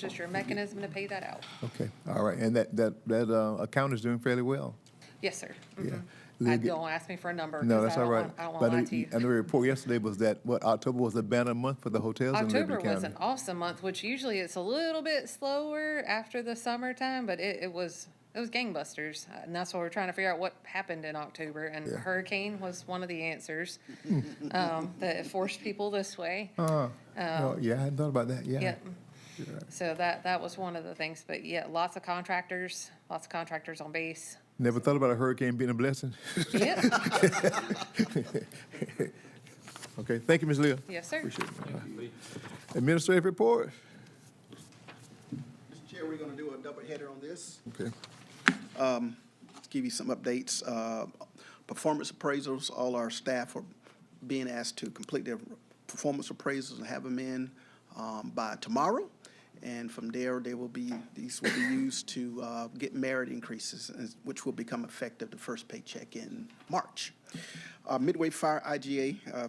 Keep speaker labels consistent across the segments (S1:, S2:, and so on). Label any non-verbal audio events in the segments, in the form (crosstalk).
S1: just your mechanism to pay that out.
S2: Okay, all right, and that, that, that uh, account is doing fairly well.
S1: Yes, sir.
S2: Yeah.
S1: Mhm.
S2: Leave
S1: I
S2: it-
S1: don't ask me for a number.
S2: No,
S1: 'cause I
S2: that's all
S1: don't
S2: right.
S1: want- I don't
S2: But
S1: want to lie
S2: know-
S1: to you.
S2: I know the report yesterday was that, what, October was a banner month for the hotels in
S1: October
S2: Liberty
S1: was
S2: County.
S1: an awesome month, which usually it's a little bit slower after the summertime, but it, it was, it was gangbusters. Uh, And that's why we're trying to figure out what happened in October, and
S2: Yeah.
S1: hurricane was one of the answers,
S2: (laughs)
S1: um, that it forced people this way.
S2: Uh, oh,
S1: um,
S2: yeah, I hadn't thought about that, yeah.
S1: Yep. So that, that was one of the things, but yeah, lots of contractors, lots of contractors on base.
S2: Never thought about a hurricane being a blessing. (laughs)
S1: Yep,
S2: Okay, thank you, Ms. Leah.
S1: yes, sir.
S2: Appreciate it. Administrative report.
S3: Mr. Chair, we're going to do a double header on this.
S2: Okay.
S3: Let's give you some updates. Uh, Performance appraisals, all our staff are being asked to complete their performance appraisals and have them in um, by tomorrow. And from there, they will be, these will be used to uh, get merit increases, and- which will become effective the first paycheck in March. Uh, Midway Fire IGA, uh,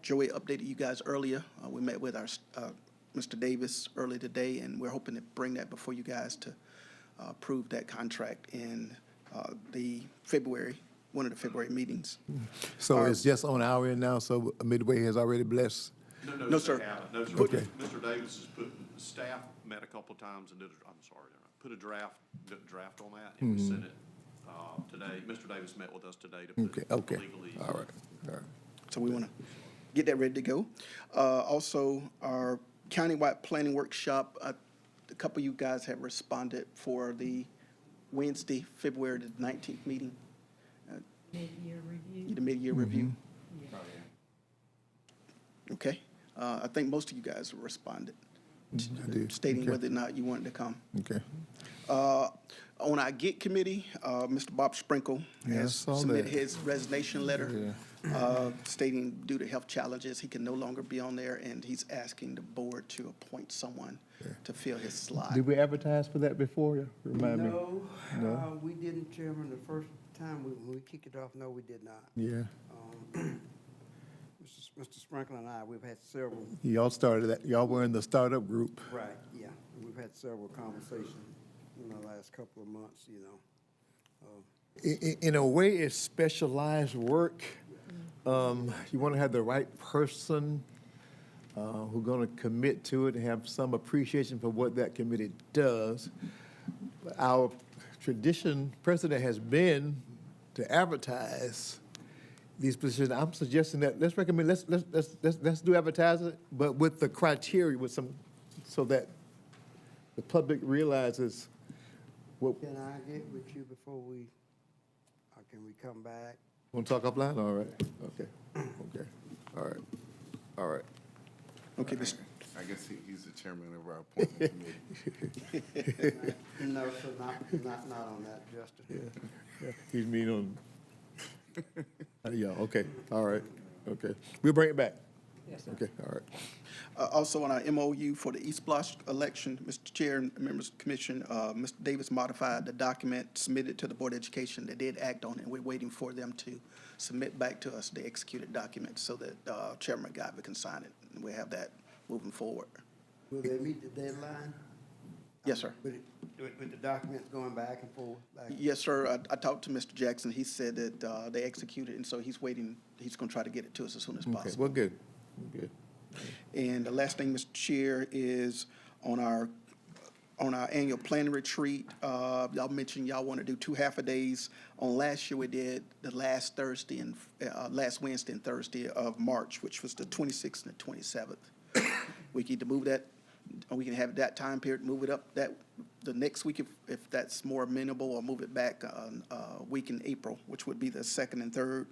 S3: Joey updated you guys earlier. Uh, we met with our, uh, Mr. Davis early today, and we're hoping to bring that before you guys to uh, approve that contract in uh, the February, one of the February meetings.
S2: So it's just on our end now, so Midway has already blessed.
S3: No,
S4: they
S3: sir.
S4: haven't. No, sir.
S2: Okay.
S4: Mr. Davis has put, staff met a couple of times and did, a- I'm sorry, put a draft, did a draft on that,
S2: Mm-hmm.
S4: and we sent it, uh, today. Mr. Davis met with us today to
S2: Okay,
S4: put
S2: okay,
S4: legally.
S2: all right, all right.
S3: So we want to get that ready to go. Uh, also, our countywide planning workshop, uh, a couple of you guys have responded for the Wednesday, February the nineteenth meeting, Uh,
S5: Mid-year review. Mm-hmm.
S3: the mid-year review.
S5: Yeah.
S3: Okay? Uh, I think most of you guys responded,
S2: I do.
S3: stating
S2: Okay,
S3: whether or not you wanted to come.
S2: Okay,
S3: Uh, On our GIT committee, uh, Mr. Bob Sprinkle
S2: Yeah, I
S3: has
S2: saw
S3: submitted
S2: that.
S3: his resignation letter uh, stating due to health challenges, he can no longer be on there, and he's asking the board to appoint someone to fill his slot.
S2: did we advertise for that before? Remind me.
S6: No, uh, we didn't, Chairman, the first time we, when we kicked it off, no, we did not.
S2: Yeah,
S6: Um, Mr. S- Mr. Sprinkle and I, we've had several,
S2: y'all started that, y'all were in the startup group.
S6: right, yeah, we've had several conversations in the last couple of months, you know.
S2: i- i- in a way, it's specialized work. Um, you want to have the right person uh, who's going to commit to it and have some appreciation for what that committee does. Our tradition, precedent has been to advertise these positions. I'm suggesting that let's recommend let's let's let's let's, let's do advertising, but with the criteria, with some, so that the public realizes what.
S6: Can I get with you before we, or can we come back?
S2: (laughs) Want to talk offline? All right, okay, okay, all right, all right.
S3: Okay, Mr.
S7: I guess he, he's the chairman of our appointment committee.
S6: No, sir, not, not, not on that, Justin.
S2: Yeah, He's mean on, (laughs) Uh, yeah, okay, all right, okay. We'll bring it back. Yes, sir. Okay, all right.
S3: Uh, Also, on our MOU for the East Block election, Mr. Chair and members of the commission, uh, Mr. Davis modified the document submitted to the Board of Education. They did act on it. We're waiting for them to submit back to us the executed document so that uh, Chairman Guyver can sign it. And we have that moving forward.
S6: Will they meet the deadline?
S3: Yes, sir.
S6: With, it- with with the documents going back and forth? back-
S3: Yes, sir. I- I talked to Mr. Jackson. He said that uh, they executed, and so he's waiting. He's going to try to get it to us as soon as
S2: Okay,
S3: possible.
S2: well, good, good.
S3: And the last thing, Mr. Chair, is on our, on our annual planning retreat, uh, y'all mentioned y'all want to do two half-a-days. On last year, we did the last Thursday and, uh, last Wednesday and Thursday of March, which was the twenty-sixth and the twenty-seventh. (coughs) We can either move that, or we can have that time period, move it up that, the next week if, if that's more amenable, or move it back, uh, uh, week in April, which would be the second and third.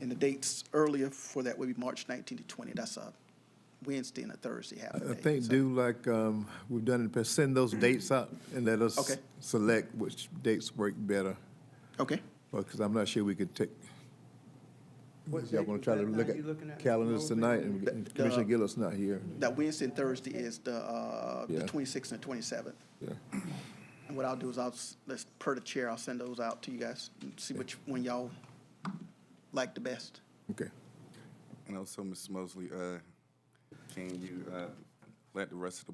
S3: And the dates earlier for that would be March 19 to 20. That's a Wednesday and a Thursday half a day.
S2: I think
S3: So-
S2: do like um, we've done in the past, send those dates out and let us
S3: Okay.
S2: select which dates work better,
S3: Okay,
S2: because I'm not sure we could take.
S6: What
S2: Y'all
S6: date
S2: want
S6: was
S2: to try to
S6: that now
S2: look
S6: you looking
S2: at
S6: at, uh, Mr.
S2: calendars
S6: Mosley?
S2: tonight, and we-
S3: The-
S2: and Commissioner
S3: the-
S2: Gillis not here.
S3: that Wednesday and Thursday is the, uh, the
S2: Yeah.
S3: 26th and 27th.
S2: Yeah.
S3: And what I'll do is I'll, s- let's, per the chair, I'll send those out to you guys and see which one y'all like the best.
S2: Okay.
S7: And also, Ms. Mosley, uh, can you, uh, let the rest of the